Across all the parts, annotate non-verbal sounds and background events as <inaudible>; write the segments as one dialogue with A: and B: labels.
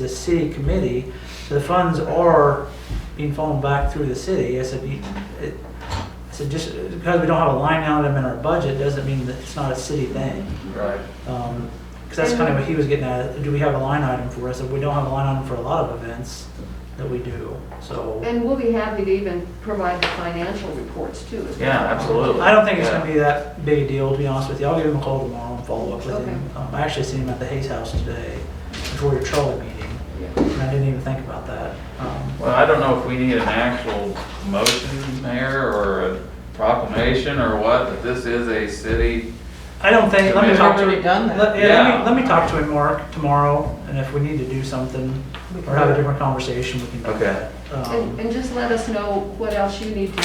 A: the city committee, the funds are being funneled back through the city. I said, you- it- I said, just because we don't have a line item in our budget, doesn't mean that it's not a city thing.
B: Right.
A: Because that's kind of what he was getting at, do we have a line item for us? And we don't have a line item for a lot of events that we do, so.
C: And we'll be happy to even provide the financial reports too. if
B: Yeah,
C: that's-
B: absolutely.
A: I don't think it's
B: Yeah.
A: gonna be that big a deal, to be honest with you. I'll give him a call tomorrow and follow up with
C: Okay.
A: him. Um, I actually seen him at the Hayes House today before your trolley meeting,
C: Yeah.
A: and I didn't even think about that. Um,
B: Well, I don't know if we need an actual motion, Mayor, or a proclamation or what, that this is a city.
A: I don't think, let me
B: We've
A: talk to.
D: already done that.
A: let- Yeah, let
B: Yeah.
A: me, let me talk to him, Mark, tomorrow, and if we need to do something
D: We can
A: or have
D: do
A: a
D: it.
A: different conversation, we can do
B: Okay.
A: that. Um,
C: And, and just let us know what else you need to,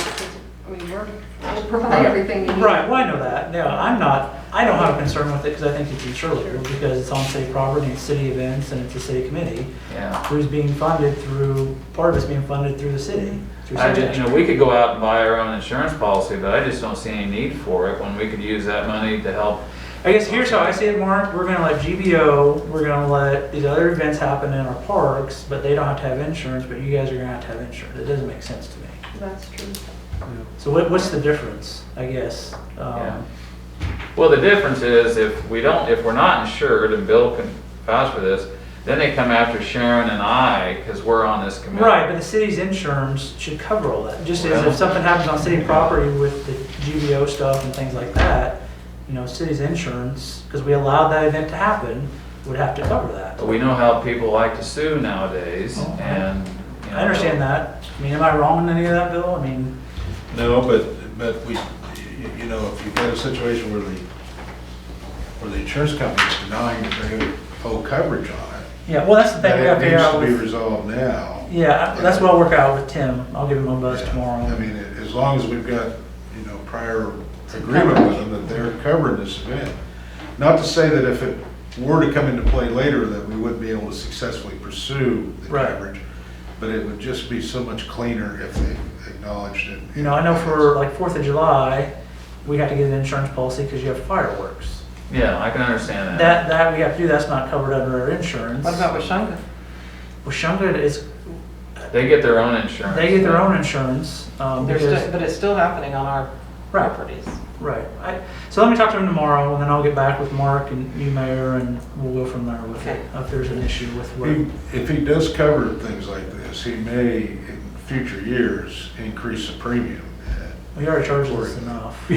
C: I mean, we're, we'll provide everything you need.
A: Right, well, I know that. No, I'm not, I don't have a concern with it because I think it's insurable because it's on city property, it's city events, and it's a city committee
B: Yeah.
A: who's being funded through, part of it's being funded through the city. through
B: I
A: city
B: just, you know, we could go out and buy our own insurance policy, but I just don't see any need for it when we could use that money to help.
A: I guess here's how I see it, Mark. We're gonna let GBO, we're gonna let these other events happen in our parks, but they don't have to have insurance, but you guys are gonna have to have insurance. It doesn't make sense to me.
C: That's true.
A: So what, what's the difference, I guess?
B: Yeah.
A: Um,
B: Well, the difference is if we don't, if we're not insured, and Bill can vouch for this, then they come after Sharon and I because we're on this committee.
A: Right, but the city's insurance should cover all that, just as
B: Well-
A: if something happens on city property with the GBO stuff and things like that, you know, city's insurance, because we allowed that event to happen, would have to cover that.
B: We know how people like to sue nowadays
A: Oh, I-
B: and. you know,
A: I understand that. I mean, am I wrong in any of that, Bill? I mean,
E: No, but, but we, you- you know, if you've got a situation where the, where the insurance company's denying that they're gonna pull coverage on it,
A: yeah, well, that's the thing we have to
E: that
A: figure
E: needs
A: out
E: to be
A: with.
E: resolved now.
A: Yeah, I- that's what I'll work out with Tim. I'll give him a buzz
E: Yeah.
A: tomorrow.
E: I mean, as long as we've got, you know, prior agreement with them that they're covering this event. Not to say that if it were to come into play later, that we wouldn't be able to successfully pursue the
A: Right.
E: coverage, but it would just be so much cleaner if they acknowledged it.
A: You know, I know for like Fourth of July, we have to get an insurance policy because you have fireworks.
B: Yeah, I can understand
A: That, that we have to do, that's not covered under our insurance.
D: What about Washunga?
A: Washunga is,
B: They get their own insurance.
A: they get their own insurance, um,
D: There's
A: because,
D: still, but it's still happening on our
A: Right.
D: properties.
A: right. I- So let me talk to him tomorrow and then I'll get back with Mark and you, Mayor, and we'll go from there with it. If there's an issue with what,
E: He- If he does cover things like this, he may, in future years, increase the premium.
A: we already charged us enough. <laughs>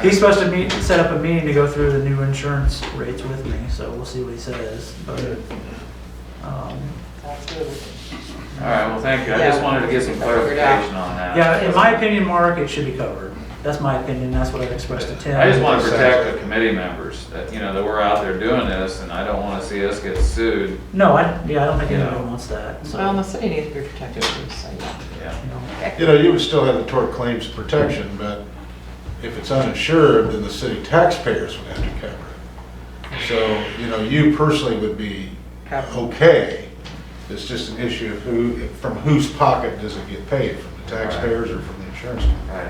A: He's
E: So,
A: supposed to meet, set up a meeting to go through the new insurance rates with me, so we'll see what he says, but, um,
D: That's good.
B: All right, well, thank you. I just
D: Yeah.
B: wanted to get some clarification on that.
A: yeah, in my opinion, Mark, it should be covered. That's my opinion, that's what I've expressed to Tim.
B: I just want to protect the committee members, that, you know, that we're out there doing this, and I don't want to see us get sued.
A: No, I, yeah, I don't think anybody
B: Yeah.
A: wants that, so.
D: Well, the city needs to be protected too, so yeah.
B: Yeah.
A: you know.
E: You know, you would still have the tort claims protection, but if it's uninsured, then the city taxpayers would have to cover it. So, you know, you personally would be
D: Covered.
E: okay. It's just an issue of who, from whose pocket does it get paid, from the taxpayers or from the insurance company?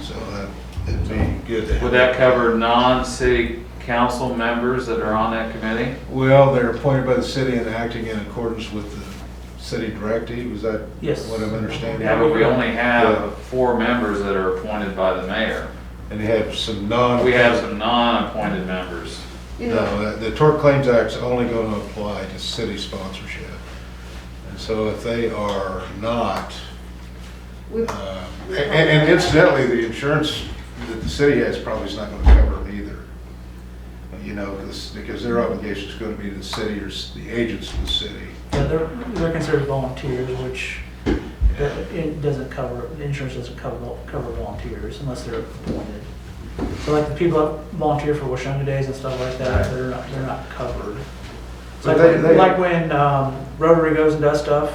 E: So that, it'd be good to have.
B: Would that cover non-city council members that are on that committee?
E: Well, they're appointed by the city and acting in accordance with the city directive, is that
A: Yes.
E: what I'm understanding?
B: Yeah, but we only
E: Yeah.
B: have four members that are appointed by the mayor.
E: And you have some non.
B: We have some non-appointed members.
C: You know,
E: No, the Tort Claims Act's only going to apply to city sponsorship. And so if they are not,
C: we,
E: uh, and and incidentally, the insurance that the city has probably is not going to cover them either. You know, 'cause- because their obligation is going to be to the city or s- the agents of the city.
A: Yeah, they're, they're considered volunteers, which that- it doesn't cover, the insurance doesn't cover, vol- cover volunteers unless they're appointed. So like the people that volunteer for Washunga Days and stuff like that, they're not, they're not covered. It's
E: But
A: Like,
E: they- they-
A: when- like when um, Rotary goes and does stuff,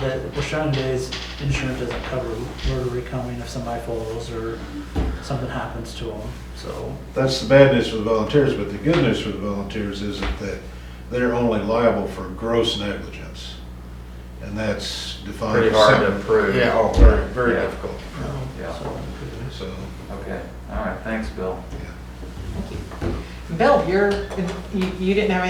A: that Washunga Days, insurance doesn't cover Rotary coming if somebody falls or something happens to them, so.
E: That's the bad news for the volunteers, but the good news for the volunteers is that they- they're only liable for gross negligence. And that's defined.
B: Pretty hard to prove.
E: Yeah, oh, very, very
B: Yeah.
E: difficult.
A: you know,
B: Yeah.
A: so-
E: So,
B: Okay, all right, thanks, Bill.
E: yeah.
D: Bill, you're, you, you didn't have any